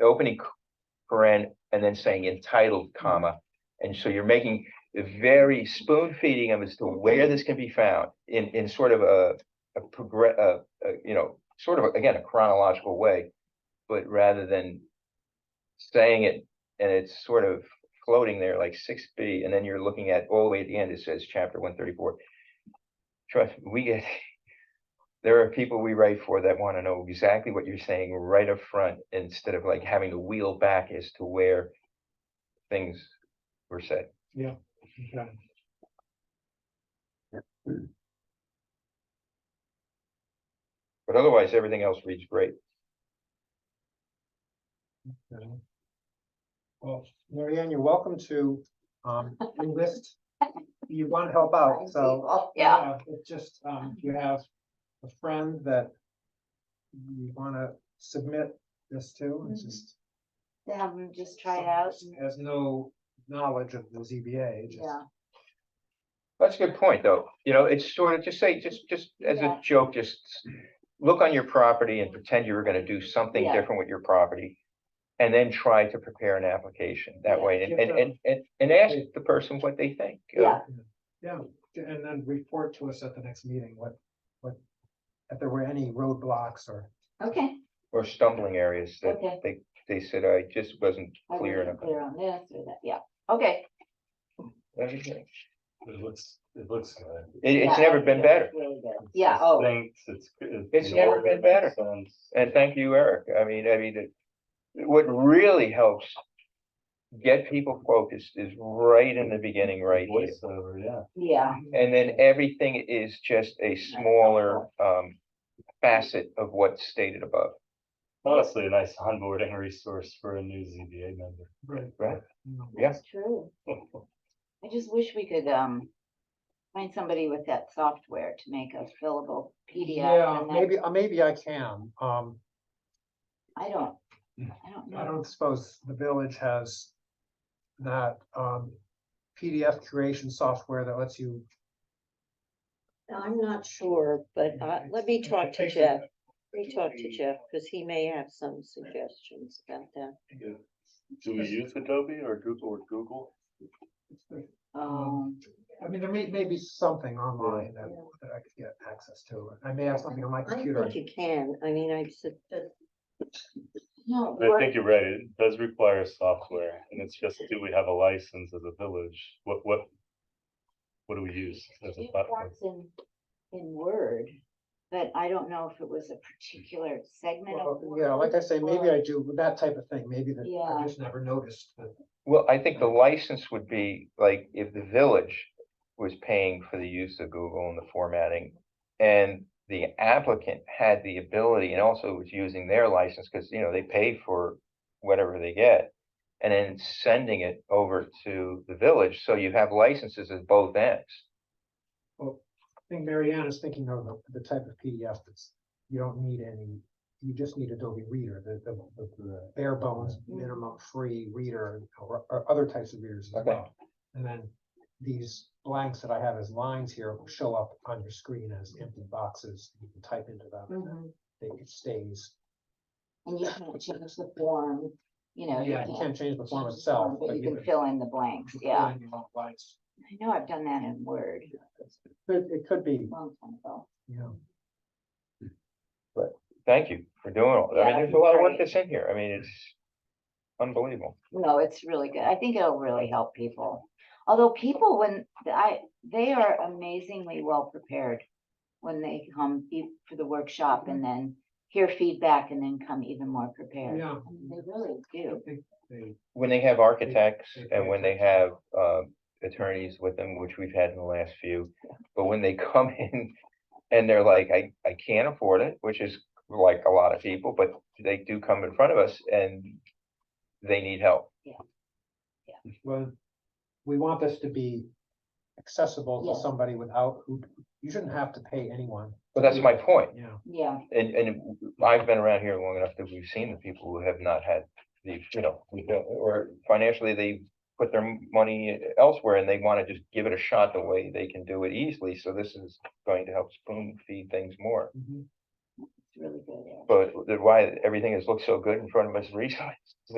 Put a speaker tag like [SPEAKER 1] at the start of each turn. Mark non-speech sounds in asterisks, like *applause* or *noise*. [SPEAKER 1] opening c- paren and then saying entitled, comma. And so you're making very spoon feeding them as to where this can be found in, in sort of a, a progress, uh, uh, you know, sort of, again, a chronological way. But rather than saying it and it's sort of floating there like six B and then you're looking at all the way at the end, it says chapter one thirty-four. Trust, me, we get, there are people we write for that want to know exactly what you're saying right up front instead of like having to wheel back as to where things were said.
[SPEAKER 2] Okay.
[SPEAKER 1] But otherwise, everything else reads great.
[SPEAKER 2] Okay. Well, Mary Ann, you're welcome to um enlist. You want to help out, so.
[SPEAKER 3] Yeah,
[SPEAKER 2] It's just, um, if you have a friend that you want to submit this to, it's
[SPEAKER 3] Mhm.
[SPEAKER 2] just.
[SPEAKER 3] to have them just try it out. and-
[SPEAKER 2] Has no knowledge of the ZBA, just.
[SPEAKER 3] Yeah,
[SPEAKER 1] That's a good point, though. You know, it's sort of just say, just, just as a
[SPEAKER 3] Yeah.
[SPEAKER 1] joke, just look on your property and pretend you were gonna do something
[SPEAKER 3] Yeah.
[SPEAKER 1] different with your property. And then try to prepare an application that
[SPEAKER 3] Yeah.
[SPEAKER 1] way and,
[SPEAKER 2] Give
[SPEAKER 1] and,
[SPEAKER 2] them-
[SPEAKER 1] and, and, and ask the person what they think. uh,
[SPEAKER 3] yeah,
[SPEAKER 2] And then report to us at the next meeting, what, what, if there were any roadblocks or.
[SPEAKER 3] okay,
[SPEAKER 1] Or stumbling areas that
[SPEAKER 3] okay.
[SPEAKER 1] they, they said, I just wasn't
[SPEAKER 3] I
[SPEAKER 1] clear
[SPEAKER 3] wasn't
[SPEAKER 1] enough.
[SPEAKER 3] Clear on this or that, yeah, okay.
[SPEAKER 1] Everything.
[SPEAKER 4] It looks, it looks good.
[SPEAKER 1] It, it's
[SPEAKER 3] Yeah,
[SPEAKER 1] never
[SPEAKER 3] I
[SPEAKER 1] been
[SPEAKER 3] think
[SPEAKER 1] better.
[SPEAKER 3] that's really good. Yeah, oh,
[SPEAKER 4] Thanks, it's. good.
[SPEAKER 1] It's
[SPEAKER 4] You know,
[SPEAKER 1] never been
[SPEAKER 4] it
[SPEAKER 1] better.
[SPEAKER 4] makes sense.
[SPEAKER 1] And thank you, Eric. I mean, I mean, it- what really helps get people focused is right in the beginning, right here.
[SPEAKER 4] Voiceover, yeah.
[SPEAKER 3] yeah,
[SPEAKER 1] And then everything is just a smaller um facet of what's stated above.
[SPEAKER 4] Honestly, a nice onboarding resource for a new ZBA member.
[SPEAKER 2] Right.
[SPEAKER 1] Right.
[SPEAKER 2] No.
[SPEAKER 1] Yeah.
[SPEAKER 3] that's true. I just wish we could, um, find somebody with that software to make a fillable PDF.
[SPEAKER 2] Yeah,
[SPEAKER 3] and then-
[SPEAKER 2] maybe, uh, maybe I can, um,
[SPEAKER 3] I don't, I don't
[SPEAKER 2] I
[SPEAKER 3] know.
[SPEAKER 2] don't suppose the village has that, um, PDF creation software that lets you.
[SPEAKER 5] I'm not sure, but uh, let me talk to Jeff. Let me talk to Jeff, because he may have some suggestions about that.
[SPEAKER 4] Do we use Adobe or Google or Google?
[SPEAKER 3] Um,
[SPEAKER 2] I mean, there may, may be something online that, that I could get access to. I may have something on my
[SPEAKER 5] I
[SPEAKER 2] computer.
[SPEAKER 5] think you can, I mean, I said,
[SPEAKER 3] no,
[SPEAKER 4] I
[SPEAKER 3] we're-
[SPEAKER 4] think you're right, it does require software, and it's just, do we have a license as a village? What, what? What do we use as a
[SPEAKER 3] It
[SPEAKER 4] platform?
[SPEAKER 3] works in, in Word, but I don't know if it was a particular segment of.
[SPEAKER 2] Well, Yeah, like I say, maybe I do with that type of thing, maybe that
[SPEAKER 3] Yeah.
[SPEAKER 2] I just never noticed. that-
[SPEAKER 1] Well, I think the license would be like if the village was paying for the use of Google and the formatting. And the applicant had the ability and also was using their license because, you know, they pay for whatever they get. And then sending it over to the village. So you have licenses at both ends.
[SPEAKER 2] Well, I think Marianne is thinking of the- the type of PDF that's, you don't need any, you just need Adobe Reader, the, the, the- the bare bones
[SPEAKER 3] Mm-hmm.
[SPEAKER 2] minimum free reader or, or other types of readers as
[SPEAKER 1] Okay.
[SPEAKER 2] well. And then these blanks that I have as lines here will show up on your screen as empty boxes. You can type into them and then
[SPEAKER 3] Mhm.
[SPEAKER 2] they- it stays.
[SPEAKER 3] And you can't change the form, you know.
[SPEAKER 2] Yeah, you can't change the form
[SPEAKER 3] change the
[SPEAKER 2] itself.
[SPEAKER 3] But you can fill in the blanks, yeah.
[SPEAKER 2] fill in your own blanks.
[SPEAKER 3] I know I've done that in Word
[SPEAKER 2] It, it could be,
[SPEAKER 3] a long time ago.
[SPEAKER 2] you know.
[SPEAKER 1] Thank you for doing all, I
[SPEAKER 3] Yeah,
[SPEAKER 1] mean, there's a lot of work
[SPEAKER 3] great.
[SPEAKER 1] that's in here. I mean, it's unbelievable.
[SPEAKER 3] No, it's really good. I think it'll really help people. Although people, when I, they are amazingly well prepared when they come e- for the workshop and then hear feedback and then come even more prepared.
[SPEAKER 2] Yeah.
[SPEAKER 3] I mean, They really do.
[SPEAKER 2] They-
[SPEAKER 1] When they have architects
[SPEAKER 2] they
[SPEAKER 1] and
[SPEAKER 2] pay
[SPEAKER 1] when they have
[SPEAKER 2] attention.
[SPEAKER 1] uh attorneys with them, which we've had in the last few. But when they *laughs* come in and they're like, I I can't afford it, which is like a lot of people, but they do come in front of us and they need help.
[SPEAKER 2] Well, we want this to be accessible
[SPEAKER 3] Yeah.
[SPEAKER 2] to somebody without, who, you shouldn't have to pay anyone.
[SPEAKER 1] But that's my point.
[SPEAKER 2] Yeah.
[SPEAKER 3] Yeah,
[SPEAKER 1] And and I've been around here long enough that we've seen the people who have not had the, you know, we don't- or financially, they put their money elsewhere and they want to just give it a shot the
[SPEAKER 2] Mm-hmm.
[SPEAKER 1] way they can do it easily. So this is going to help spoon feed things more.
[SPEAKER 3] really good.
[SPEAKER 1] But the- why everything has looked so good in front of us *laughs* recently,